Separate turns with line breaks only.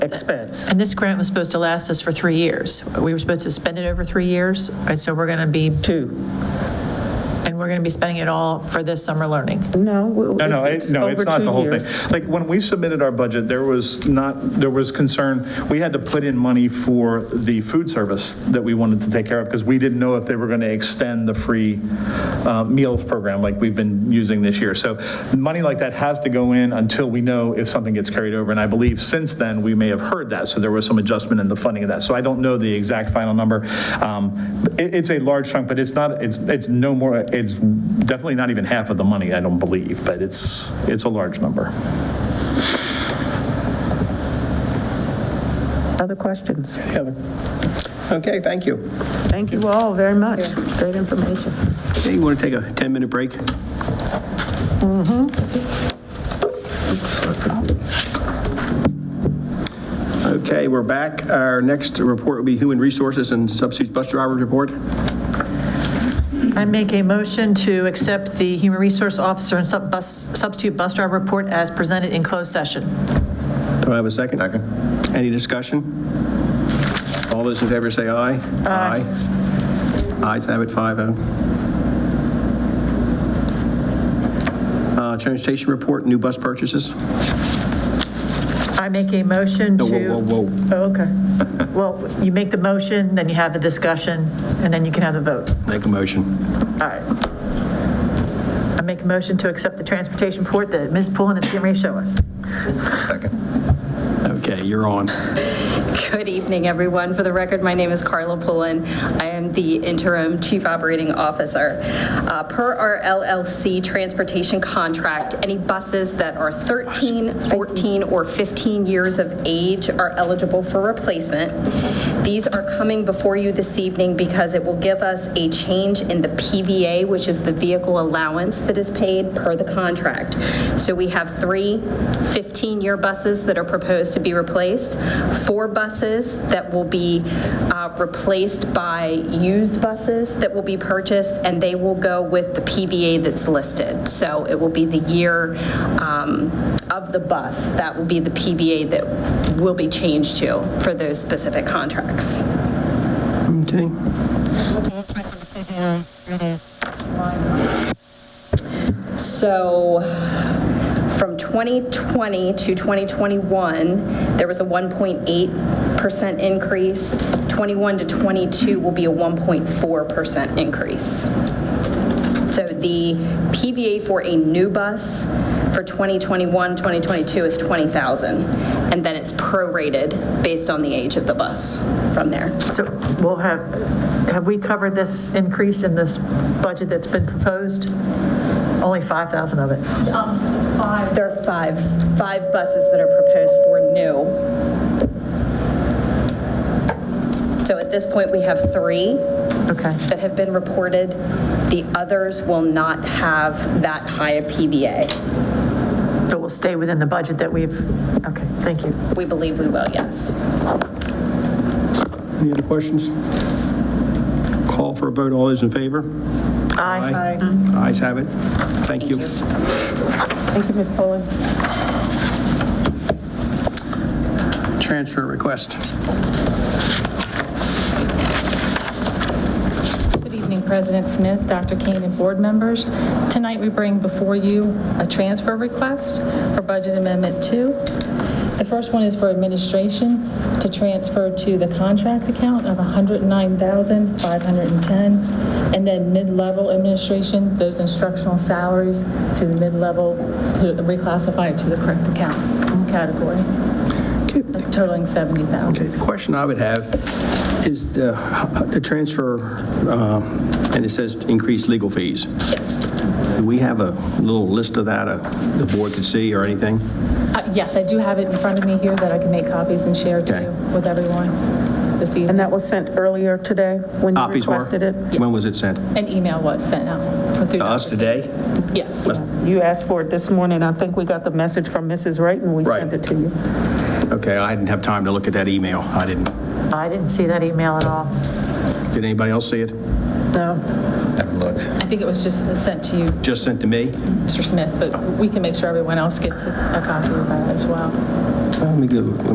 expense.
And this grant was supposed to last us for three years. We were supposed to spend it over three years, and so we're going to be,
Two.
and we're going to be spending it all for this summer learning.
No.
No, no, it- no, it's not the whole thing. Like, when we submitted our budget, there was not, there was concern, we had to put in money for the food service that we wanted to take care of, because we didn't know if they were going to extend the free uh, meals program like we've been using this year. So money like that has to go in until we know if something gets carried over, and I believe since then, we may have heard that, so there was some adjustment in the funding of that. So I don't know the exact final number. Um, it- It's a large chunk, but it's not, it's, it's no more, it's definitely not even half of the money, I don't believe, but it's, it's a large number.
Other questions?
Heather. Okay, thank you.
Thank you all very much. Great information.
Hey, you want to take a 10-minute break? Mm-hmm. Okay, we're back. Our next report will be Human Resources and Substitute Bus Driver Report.
I make a motion to accept the Human Resource Officer and sub- bus- Substitute Bus Driver Report as presented in closed session.
Do I have a second? Second. Any discussion? All those in favor say aye. Aye. Ayes have it, oh. 5-0. Uh, Transportation report, new bus purchases.
I make a motion to.
No, whoa, whoa, whoa.
Oh, okay. Well, you make the motion, then you have the discussion, and then you can have the vote.
Make a motion.
All right. I make a motion to accept the transportation report that Ms. Pullen is getting ready to show us.
Okay, you're on.
Good evening, everyone. For the record, my name is Carla Pullen. I am the interim chief operating officer. Uh, Per our LLC transportation contract, any buses that are 13, 14, or 15 years of age are eligible for replacement. These are coming before you this evening because it will give us a change in the PVA, which is the vehicle allowance that is paid per the contract. So we have three 15-year buses that are proposed to be replaced, four buses that will be uh, replaced by used buses that will be purchased, and they will go with the PVA that's listed. So it will be the year um, of the bus, that will be the PVA that will be changed to for those specific contracts.
Okay.
So from 2020 to 2021, there was a 1.8% increase. 21 to 22 will be a 1.4% increase. So the PVA for a new bus for 2021, 2022 is 20,000. And then it's prorated based on the age of the bus from there.
So we'll have, have we covered this increase in this budget that's been proposed? Only 5,000 of it.
There are five, five buses that are proposed for new. So at this point, we have three
Okay.
that have been reported. The others will not have that high a PVA.
So we'll stay within the budget that we've, okay, thank you.
We believe we will, yes.
Any other questions? Call for a vote. All those in favor? Aye. Mm-hmm. Ayes have it. Thank you.
Thank you, Ms. Pullen.
Transfer request.
Good evening, President Smith, Dr. Kane, and board members. Tonight, we bring before you a transfer request for Budget Amendment 2. The first one is for administration to transfer to the contract account of $109,510, and then mid-level administration, those instructional salaries to the mid-level, to reclassify it to the correct account category, totaling $70,000.
Okay, the question I would have is the, the transfer, uh, and it says increase legal fees.
Yes.
Do we have a little list of that uh, the board could see or anything?
Uh, Yes, I do have it in front of me here that I can make copies and share to
Okay.
you with everyone this
And
evening.
that was sent earlier today when you
Copies were?
requested it?
When was it sent?
An email was sent out. for- through
To us
Dr.
today?
King. Yes.
You asked for it this morning. I think we got the message from Mrs. Wright and we
Right.
sent it to you.
Okay, I didn't have time to look at that email. I didn't.
I didn't see that email at all.
Did anybody else see it?
No.
Haven't looked.
I think it was just sent to you,
Just sent to me?
Mr. Smith, but we can make sure everyone else gets a a copy of that as well.
Let me go,